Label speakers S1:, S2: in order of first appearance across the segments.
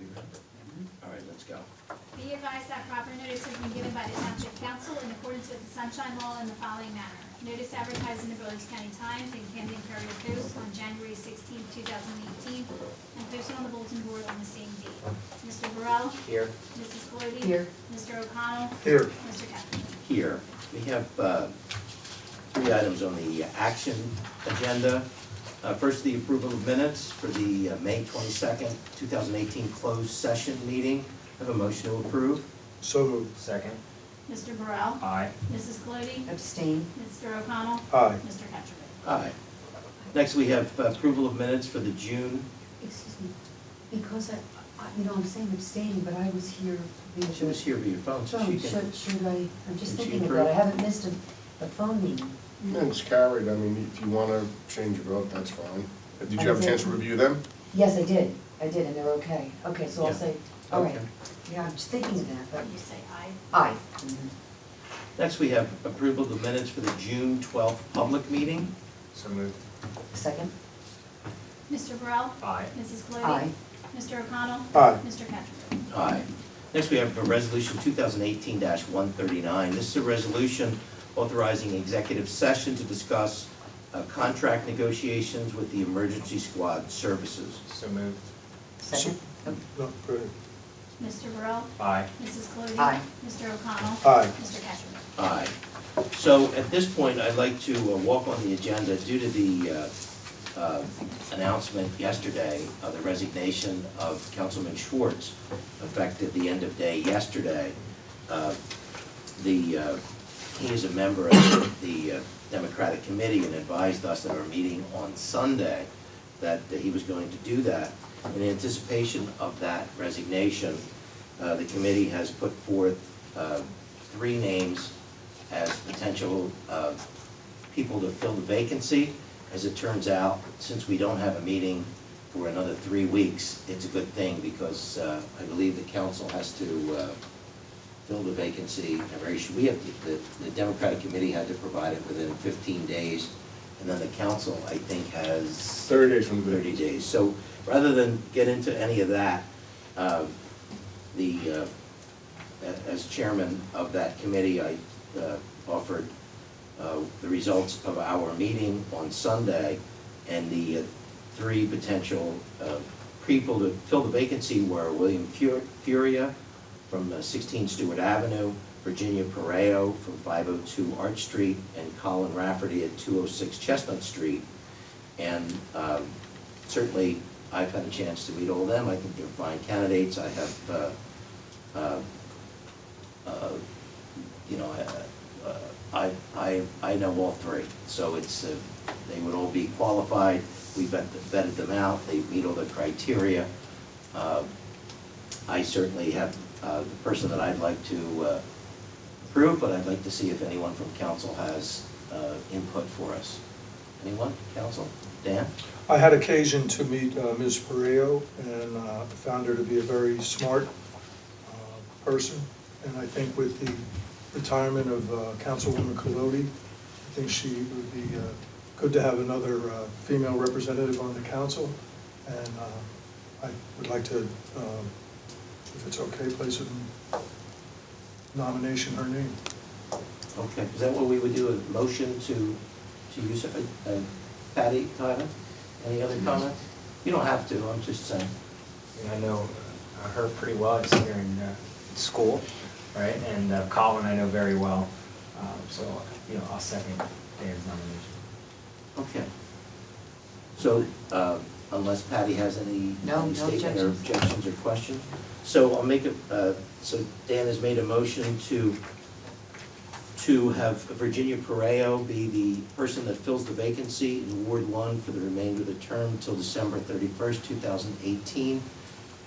S1: Mm-hmm.
S2: Be advised that proper notice has been given by the township council in accordance with the sunshine law in the following manner. Notice advertised in the Village County Times and Camden Courier Post on January 16, thousand eighteen, and posted on the bulletin board on the same date. Mr. Burrell?
S1: Here.
S2: Mrs. Cloete?
S3: Here.
S2: Mr. O'Connell?
S1: Here.
S2: Mr. Cattrick?
S1: Here. We have uh, three items on the action agenda. Uh, First, the approval of minutes for the uh, May 22nd, 2018 closed session meeting. I Have a motion to approve?
S4: So moved. Second.
S2: Mr. Burrell?
S4: Aye.
S2: Mrs. Cloete?
S3: abstain,
S2: Mr. O'Connell?
S4: Aye.
S2: Mr. Cattrick?
S1: Aye. Next, we have approval of minutes for the June,
S3: excuse me, because I, I- you know, I'm saying abstaining, but I was here. via-
S1: she was here via phone, so
S3: Phone,
S1: she can.
S3: should, should I, I'm just
S1: Did she
S3: thinking about it, I
S1: approve?
S3: haven't missed a, a phone meeting.
S5: It's carried, I mean, if you want to change your vote, that's fine. Did you have a chance to review them?
S3: Yes, I did, I did, and they're okay, okay, so I'll
S1: Yeah.
S3: say, all right,
S1: Okay.
S3: yeah, I'm just thinking of that,
S2: You say aye.
S3: but aye.
S1: Mm-hmm. Next, we have approval of the minutes for the June 12th public meeting.
S4: So moved.
S3: Second,
S2: Mr. Burrell?
S4: Aye.
S2: Mrs. Cloete?
S3: aye,
S2: Mr. O'Connell?
S4: Aye.
S2: Mr. Cattrick?
S1: Aye. Next, we have a resolution 2018-139. This is a resolution authorizing executive session to discuss uh, contract negotiations with the emergency squad services.
S4: So moved.
S3: second,
S4: No, go ahead.
S2: Mr. Burrell?
S4: Aye.
S2: Mrs. Cloete?
S3: Aye.
S2: Mr. O'Connell?
S4: Aye.
S2: Mr. Cattrick?
S1: Aye. So at this point, I'd like to uh, walk on the agenda due to the uh, uh, announcement yesterday of the resignation of Councilman Schwartz, effective the end of day yesterday. Uh, The, uh, he is a member of the uh, Democratic Committee and advised us at our meeting on Sunday that he was going to do that. In anticipation of that resignation, uh, the committee has put forth uh, three names as potential uh, people to fill the vacancy. As it turns out, since we don't have a meeting for another three weeks, it's a good thing because uh, I believe the council has to uh, fill the vacancy. in a very sh- We have, the- the Democratic Committee had to provide it within 15 days, and then the council, I think, has...
S5: 30 days from the
S1: 30 days. So rather than get into any of that, uh, the, uh, a- as chairman of that committee, I uh, offered uh, the results of our meeting on Sunday, and the uh, three potential uh, people to fill the vacancy were William Fu- Furia from uh, 16 Stewart Avenue, Virginia Pareo from 502 Arch Street, and Colin Rafferty at 206 Chestnut Street. And um, certainly, I've had a chance to meet all of them. I think they're fine candidates. I have, uh, uh, uh, you know, I- uh, I, I, I know all three. So it's, uh, they would all be qualified. We vet- vetted them out. They meet all the criteria. Uh, I certainly have uh, the person that I'd like to uh, approve, but I'd like to see if anyone from council has uh, input for us. Anyone, council? Dan?
S4: I had occasion to meet uh, Ms. Pareo and uh, found her to be a very smart uh, person. And I think with the retirement of uh, Councilwoman Colodi, I think she would be uh, good to have another uh, female representative on the council. And uh, I would like to, um, if it's okay, place a nomination her name.
S1: Okay, is that what we would do, a motion to, to use it? Uh, Patty, Tyler, any other comments? You don't have to, I'm just saying.
S6: And I know uh, her pretty well, I see her in uh, school, right? And uh, Colin I know very well, Um, so, you know, I'll second Dan's nomination.
S1: Okay. So uh, unless Patty has any
S3: No,
S1: any
S3: no
S1: statement or
S3: objections.
S1: objections or questions? So I'll make a, uh, so Dan has made a motion to, to have Virginia Pareo be the person that fills the vacancy in Ward One for the remainder of the term till December thirty-first, two thousand eighteen.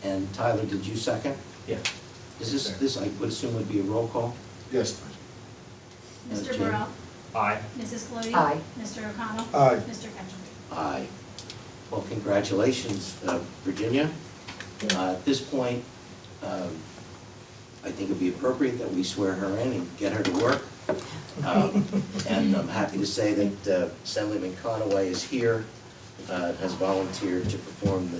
S1: And Tyler, did you second?
S6: Yeah.
S1: Is this, this I would assume would be a roll call?
S5: Yes, please.
S2: Mr.
S1: Okay.
S2: Burrell?
S6: Aye.
S2: Mrs. Cloete?
S3: Aye.
S2: Mr. O'Connell?
S4: Aye.
S2: Mr. Cattrick?
S1: Aye. Well, congratulations, uh, Virginia. Uh, At this point, um, I think it'd be appropriate that we swear her in and get her to work. Um, And I'm happy to say that uh, Assemblyman Conaway is here, uh, has volunteered to perform the